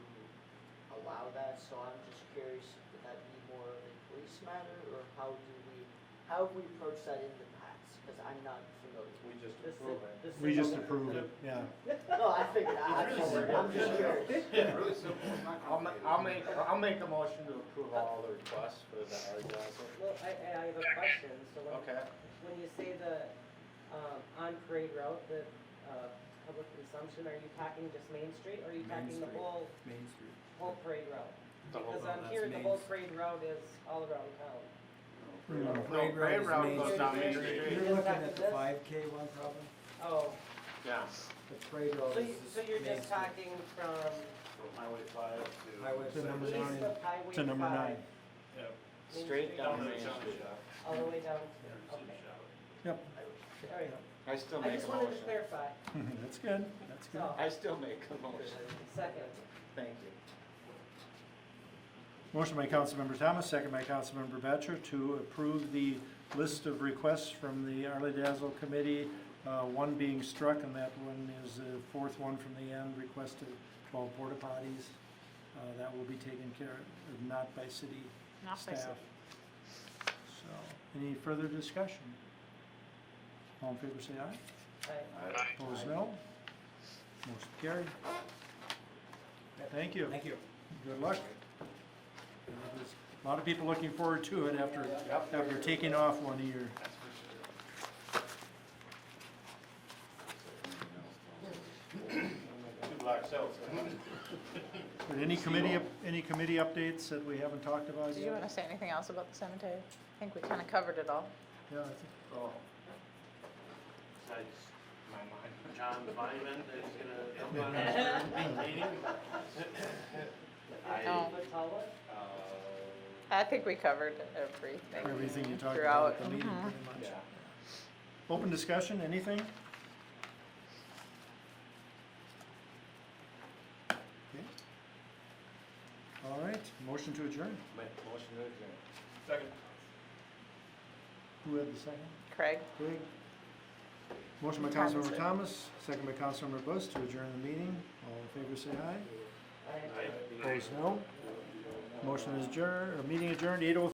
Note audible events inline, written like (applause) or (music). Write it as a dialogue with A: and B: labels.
A: that, so I'm just curious, would that be more of a police matter, or how do we, how have we approached that in the past? Because I'm not familiar.
B: (laughs) We just
A: This-
B: approve it.
A: this
C: We just
A: is-
C: approve it, yeah.
A: No, I figured, I,
B: It's really
A: I'm I'm just
B: simple.
A: curious.
B: Yeah.
D: Really simple, it's not
B: I'll, ma-
D: complicated.
B: I'll make, I'll make the motion to approve all the requests for the art Johnson.
E: Well, I, I have a question, so when,
B: Okay,
E: when you say the, um, on parade route, the, uh, public consumption, are you talking just Main Street, or are you
F: Main
E: talking the
F: Street.
E: whole,
F: Main Street.
E: whole parade route?
F: The whole
E: Because
F: route,
E: on
F: that's
E: here, the
F: Main
E: whole
F: Street.
E: parade route is all around town.
C: No,
F: No, parade route is Main
B: goes
F: Street.
B: down Main
E: Street.
B: Street.
F: You're looking at the
E: This-
F: five K one problem,
E: Oh,
B: yeah.
F: the parade route
E: so you,
F: Oh, is.
E: so you're
F: Main
E: just
F: Street.
E: talking from
D: From Highway five to.
F: Highway
C: To number
F: seven.
E: east
C: nine.
E: of Highway
C: To number nine.
E: five, Main
B: Straight
E: Street.
B: down
E: Down
B: Main Street.
E: all the way down, to- okay,
C: Yep,
E: all right.
B: I still
E: I
B: make
E: just
B: a
E: wanted
B: motion.
E: to clarify,
C: (laughs) that's good, that's good.
E: so,
B: I still make a motion,
E: second,
B: thank you.
C: Motion by Councilmember Thomas, second by Councilmember Batchor to approve the list of requests from the Arley Dazzle Committee, uh, one being struck, and that one is the fourth one from the end, requested twelve porta potties. Uh, That will be taken care of, not by city
G: Not by
C: staff.
G: city.
C: So, any further discussion? All in favor, say aye.
E: I,
C: Opposed, no. Motion carried. Thank you.
F: Thank you.
C: Good luck. There's A lot of people looking forward to it after, after taking off one year.
B: Two black cells.
C: But any committee, any committee updates that we haven't talked about
G: Did you want
C: yet?
G: to say anything else about the cemetery? I think we kind of covered it all.
C: Yeah, I think-
B: Oh,
D: Besides
B: my mind.
D: John Byman that's gonna help on
B: (laughs)
D: us during the meeting. I,
G: No.
E: Matala?
D: uh,
G: I think we covered everything.
C: everything you talked about at the
G: Throughout.
C: meeting
G: Mhm.
C: pretty much.
B: yeah.
C: Open discussion, anything? Okay. All right, motion to adjourn.
B: Make a motion to adjourn.
C: Who had the second?
G: Craig?
C: Craig. Motion by
G: Thomas.
C: Councilmember Thomas, second by Councilmember Bus to adjourn the meeting. All in favor, say aye.
E: I-
D: I-
A: 哎
C: Opposed, no. Motion is adjourned, or meeting adjourned, eight oh